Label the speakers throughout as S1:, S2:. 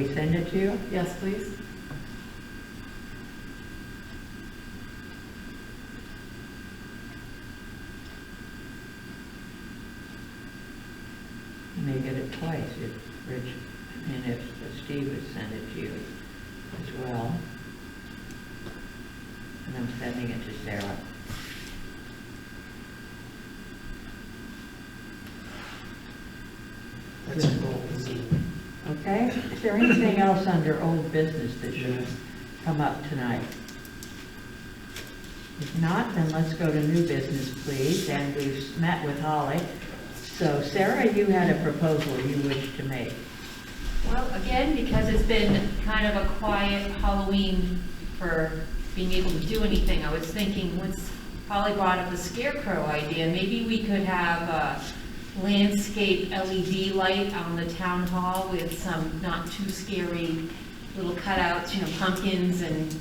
S1: we send it to you?
S2: Yes, please.
S1: You may get it twice if Rich, I mean, if Steve has sent it to you as well. And I'm sending it to Sarah.
S3: That's a goal, isn't it?
S1: Okay, is there anything else under old business that should come up tonight? If not, then let's go to new business, please, and we've met with Holly. So Sarah, you had a proposal you wished to make.
S4: Well, again, because it's been kind of a quiet Halloween for being able to do anything, I was thinking, once Holly brought up the scarecrow idea, maybe we could have a landscape LED light on the town hall with some not too scary little cutouts, you know, pumpkins and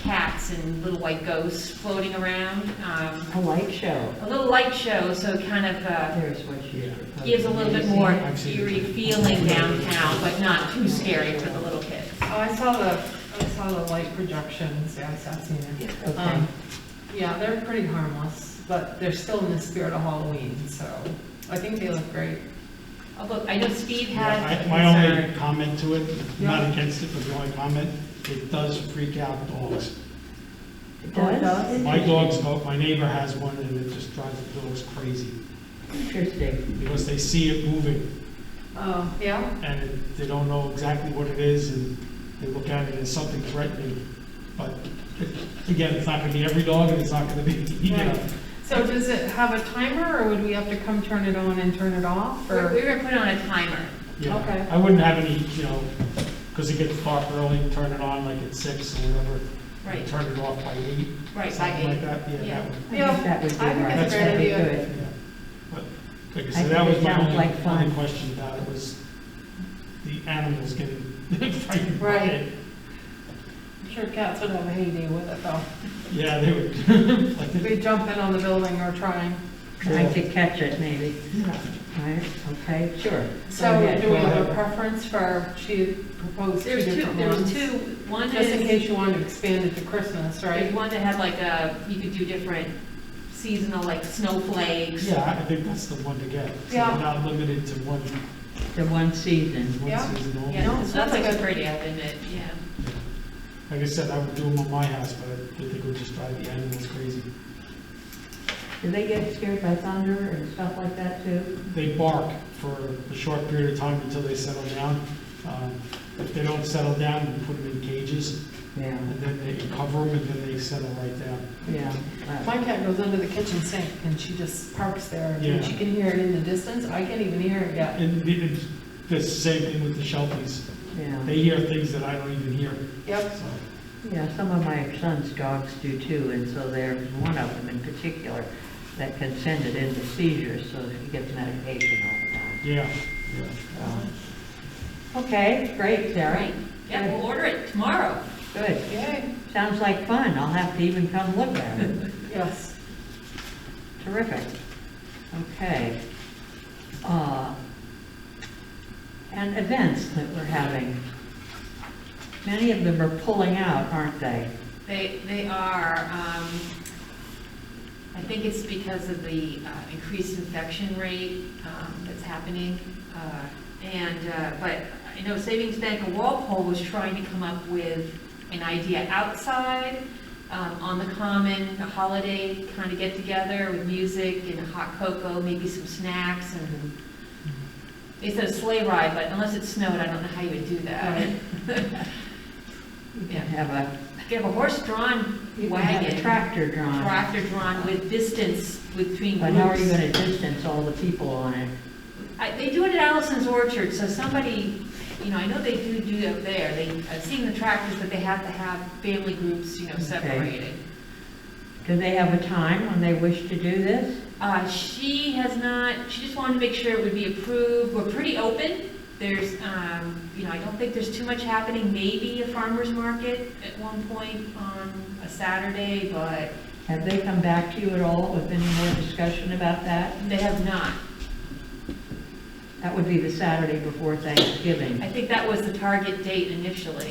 S4: cats and little white ghosts floating around. Um,
S1: A light show.
S4: A little light show, so kind of, uh,
S1: There's what she's proposing.
S4: gives a little bit
S1: Have you
S4: more
S1: seen it?
S3: I've seen it.
S4: eerie feeling downtown, but not too scary for the little kids.
S2: Oh, I saw the, I saw the light projections, yeah, I- I've seen it.
S1: Okay.
S2: Um, Yeah, they're pretty harmless, but they're still in the spirit of Halloween, so I think they look great.
S4: Although, Oh, I know Steve
S3: Yeah,
S4: had
S3: I-
S4: a
S3: My only
S4: concern.
S3: comment to it, I'm not
S2: Yeah.
S3: against it, but the only comment, it does freak out dogs.
S1: It does?
S3: My dogs, go- my neighbor has one, and it just drives the dogs crazy,
S1: Interesting.
S3: because they see it moving,
S2: Oh, yeah?
S3: and it- they don't know exactly what it is, and they look at it as something threatening. But, again, it's not gonna be every dog, and it's not gonna be, you know,
S2: Right. So does it have a timer, or would we have to come turn it on and turn it off,
S4: We're
S2: or?
S4: we're gonna put on a timer.
S3: Yeah.
S2: Okay.
S3: I wouldn't have any, you know, because it gets dark early, turn it on like at six or whatever.
S4: Right.
S3: Turn it off by eight.
S4: Right, by
S3: Something like
S4: eight.
S3: that, yeah,
S4: Yeah.
S3: that
S1: I
S3: would,
S1: think that would be
S2: Yeah, I think
S1: right.
S3: that's a
S1: That'd
S2: great
S1: be
S2: idea.
S1: good.
S3: yeah. But, like I
S1: think
S3: said, that was
S1: it
S3: my
S1: sounds
S3: only,
S1: like fun.
S3: only question about it was the animals getting frightened by
S2: Right.
S3: it.
S2: I'm sure cats would have a heyday with it, though.
S3: Yeah, they would,
S2: If
S3: like, they-
S2: we jump in on the building or trying.
S1: I could catch it maybe,
S3: yeah.
S1: right? Okay, sure.
S2: So
S1: Go ahead.
S2: do we have a preference for, she proposed two
S4: There's two,
S2: different
S4: there was
S2: ones?
S4: two, one
S2: Just in
S4: is,
S2: case you wanted to expand it to Christmas,
S4: there's
S2: right?
S4: one that had like a, you could do different seasonal, like snowflakes.
S3: Yeah, I think that's the one to get. So they're
S2: Yeah.
S3: Not limited to one,
S1: The one season.
S2: Yeah.
S3: one season only.
S4: Yeah,
S2: No,
S4: the
S2: that's
S4: snowflakes are
S2: good.
S4: pretty, I admit, yeah.
S3: Like I said, I would do them on my house, but I think it would just drive the animals crazy.
S1: Do they get scared by thunder and stuff like that too?
S3: they bark for a short period of time until they settle down. Um, If they don't settle down, we put them in cages,
S1: Yeah,
S3: and then they cover them, and then they settle right down.
S1: yeah. uh,
S2: My cat goes under the kitchen sink and she just parks there
S3: Yeah.
S2: and she can hear it in the distance. I can't even hear it yet.
S3: And it- it's the same thing with the Shelties.
S1: Yeah,
S3: They hear things that I don't even hear,
S2: Yep.
S3: so.
S1: yeah, some of my son's dogs do too, and so there's one of them in particular that can send it into seizures, so that he gets medication all the time.
S3: Yeah,
S1: so. Okay, great, Sarah,
S4: Right, yeah, we'll order it tomorrow.
S1: good.
S2: Yay.
S1: Sounds like fun, I'll have to even come look at it.
S2: Yes.
S1: Terrific. Okay. Uh, And events that we're having. Many of them are pulling out, aren't they?
S4: They, they are, um, I think it's because of the uh, increased infection rate, um, that's happening. Uh, And, uh, but I know Savings Bank of Walpole was trying to come up with an idea outside, um, on the common, a holiday kind of get together with music and a hot cocoa, maybe some snacks and
S1: Mm-hmm.
S4: they said a sleigh ride, but unless it snowed, I don't know how you would do that.
S1: You
S4: Yeah.
S1: can have a,
S4: Get a horse-drawn
S1: you can have a
S4: wagon.
S1: tractor drawn,
S4: tractor drawn with distance between
S1: but how are you
S4: groups.
S1: going to distance all the people on it?
S4: I- They do it at Allison's Orchard, so somebody, you know, I know they do do it up there. They, I've seen the tractors, but they have to have family groups, you know,
S1: Okay.
S4: separated.
S1: Do they have a time when they wish to do this?
S4: Uh, she has not, she just wanted to make sure it would be approved. We're pretty open. There's, um, you know, I don't think there's too much happening. Maybe a farmer's market at one point on a Saturday, but
S1: Have they come back to you at all with any more discussion about that?
S4: they have not.
S1: That would be the Saturday before Thanksgiving.
S4: I think that was the target date initially.